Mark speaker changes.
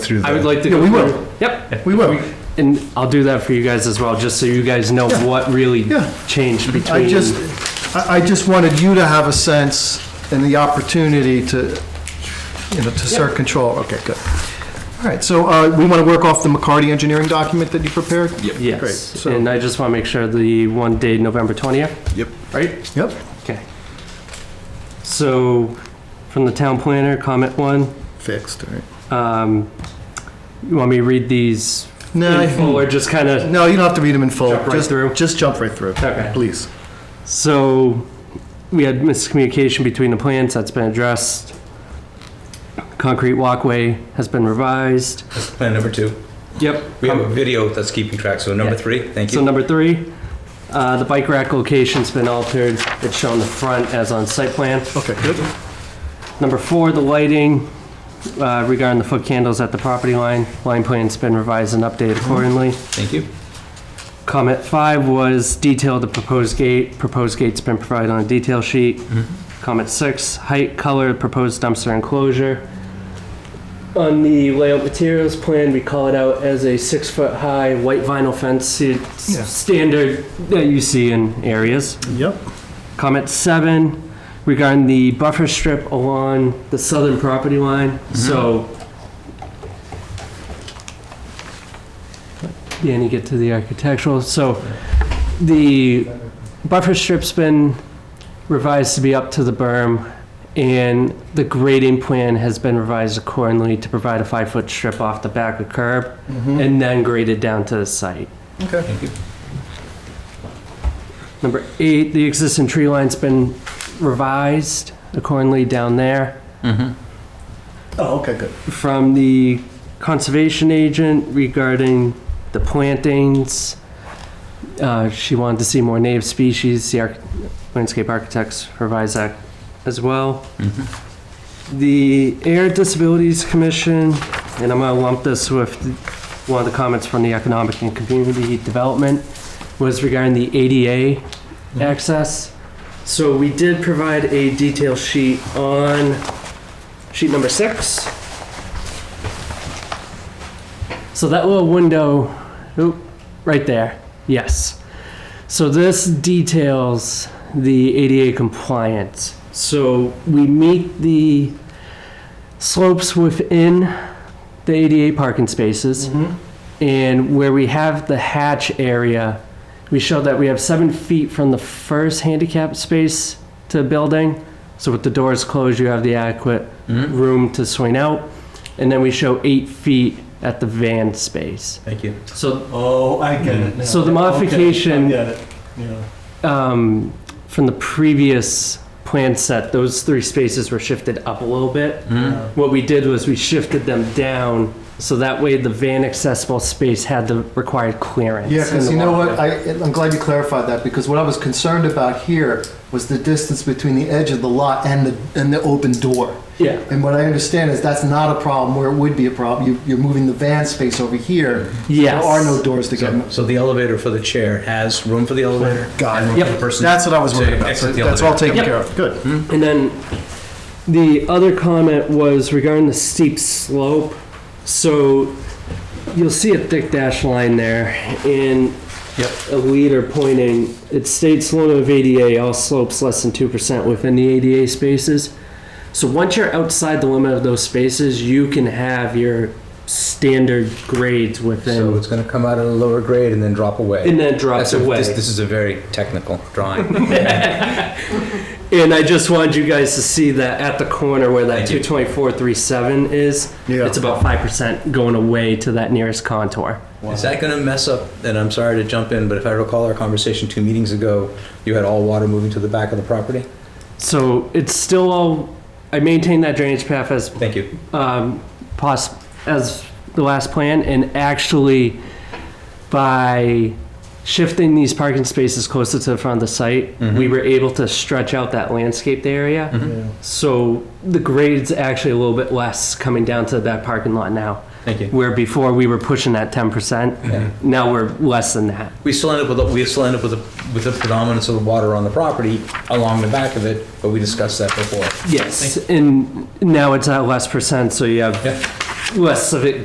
Speaker 1: through that.
Speaker 2: I would like to.
Speaker 3: Yeah,
Speaker 2: go
Speaker 3: we will.
Speaker 2: through- Yep.
Speaker 3: We will.
Speaker 2: And I'll do that for you guys as well, just so you guys know
Speaker 3: Yeah.
Speaker 2: what really
Speaker 3: Yeah.
Speaker 2: changed between.
Speaker 3: I just, I, I just wanted you to have a sense and the opportunity to, you know, to assert control. Okay, good. All right, so uh, we want to work off the McCarty engineering document that you prepared? Great,
Speaker 2: Yes,
Speaker 3: so-
Speaker 2: and I just want to make sure the one day, November 20th,
Speaker 1: Yep.
Speaker 2: right?
Speaker 3: Yep.
Speaker 2: Okay. So, from the town planner, comment one,
Speaker 3: Fixed, all right.
Speaker 2: um, you want me to read these
Speaker 3: Uh,
Speaker 2: in full
Speaker 3: No,
Speaker 2: or just kind of?
Speaker 3: no, you don't have to read them in full.
Speaker 2: Jump right
Speaker 3: Just-
Speaker 2: through?
Speaker 3: Just jump right through.
Speaker 2: Okay.
Speaker 3: Please.
Speaker 2: So, we had miscommunication between the plans, that's been addressed. Concrete walkway has been revised.
Speaker 4: That's plan number two.
Speaker 2: Yep.
Speaker 4: We have a video that's keeping track, so number
Speaker 2: Yeah.
Speaker 4: three, thank
Speaker 2: So
Speaker 4: you.
Speaker 2: number three, uh, the bike rack location's been altered. It's shown the front as on site plan.
Speaker 3: Okay, good.
Speaker 2: Number four, the lighting uh, regarding the foot candles at the property line. Line plan's been revised and updated accordingly.
Speaker 4: Thank you.
Speaker 2: Comment five was detail the proposed gate. Proposed gate's been provided on a detail sheet. Comment six, height, color, proposed dumpster enclosure. On the layout materials plan, we call it out as a six-foot-high white vinyl fence, It's
Speaker 3: Yeah.
Speaker 2: standard that you see in areas.
Speaker 3: Yep.
Speaker 2: Comment seven regarding the buffer strip along the southern property line, so. Danny, get to the architectural, so the buffer strip's been revised to be up to the berm, and the grading plan has been revised accordingly to provide a five-foot strip off the back of curb, and then graded down to the site.
Speaker 3: Okay.
Speaker 4: Thank you.
Speaker 2: Number eight, the existing tree line's been revised accordingly down there.
Speaker 3: Oh, okay, good.
Speaker 2: From the conservation agent regarding the plantings, uh, she wanted to see more native species. The arch- landscape architects revised that as well. The Air Disabilities Commission, and I'm gonna lump this with one of the comments from the Economic and Community Development, was regarding the ADA access. So we did provide a detail sheet on sheet number six. So that little window, oop, right there, yes. So this details the ADA compliance. So we meet the slopes within the ADA parking spaces. And where we have the hatch area, we show that we have seven feet from the first handicap space to the building. So with the doors closed, you have the adequate
Speaker 4: Mm-hmm.
Speaker 2: room to swing out. And then we show eight feet at the van space.
Speaker 4: Thank you.
Speaker 2: So
Speaker 5: Oh, I get it now.
Speaker 2: So the
Speaker 5: Okay,
Speaker 2: modification-
Speaker 5: I get it, yeah.
Speaker 2: um, from the previous plan set, those three spaces were shifted up a little bit. What we did was we shifted them down, so that way the van accessible space had the required clearance.
Speaker 3: Yeah,
Speaker 2: in
Speaker 3: because
Speaker 2: the
Speaker 3: you know what,
Speaker 2: walkway.
Speaker 3: I, I'm glad you clarified that, because what I was concerned about here was the distance between the edge of the lot and the, and the open door.
Speaker 2: Yeah.
Speaker 3: And what I understand is that's not a problem where it would be a problem. You, you're moving the van space over here.
Speaker 2: Yes.
Speaker 3: There are no doors to get
Speaker 4: So
Speaker 3: in.
Speaker 4: so the elevator for the chair has room for the elevator?
Speaker 3: Got
Speaker 4: and
Speaker 3: it.
Speaker 4: room for the
Speaker 2: Yep.
Speaker 4: person
Speaker 3: Oh, That's what I was
Speaker 4: to
Speaker 3: worried about. So
Speaker 4: exit the
Speaker 3: that's all
Speaker 4: elevator.
Speaker 3: taken
Speaker 2: Yep.
Speaker 3: care of. Good.
Speaker 2: And then the other comment was regarding the steep slope. So you'll see a thick dash line there and a leader pointing, it states limit of ADA, all slopes less than 2% within the ADA spaces. So once you're outside the limit of those spaces, you can have your standard grades
Speaker 4: So
Speaker 2: within
Speaker 4: it's gonna come out at a lower grade and then drop away.
Speaker 2: and then drops
Speaker 4: That's a-
Speaker 2: away.
Speaker 4: This this is a very technical drawing.
Speaker 2: And I just wanted you guys to see that at the corner where that
Speaker 4: Thank you.
Speaker 2: 22437 is,
Speaker 3: Yeah.
Speaker 2: it's about 5% going away to that nearest contour.
Speaker 4: Is that gonna mess up, and I'm sorry to jump in, but if I recall our conversation two meetings ago, you had all water moving to the back of the property?
Speaker 2: So it's still all, I maintain that drainage path as,
Speaker 4: Thank you.
Speaker 2: um, poss, as the last plan, and actually by shifting these parking spaces closer to the front of the site,
Speaker 4: Mm-hmm.
Speaker 2: we were able to stretch out that landscaped area.
Speaker 5: Yeah.
Speaker 2: So the grade's actually a little bit less coming down to that parking lot now.
Speaker 4: Thank you.
Speaker 2: Where before we were pushing that ten percent, now we're less than that.
Speaker 4: We still end up with, a- we still end up with a, with the predominance of the water on the property along the back of it, but we discussed that before.
Speaker 2: Yes, and now it's at less percent, so you have
Speaker 4: Yeah.
Speaker 2: less of it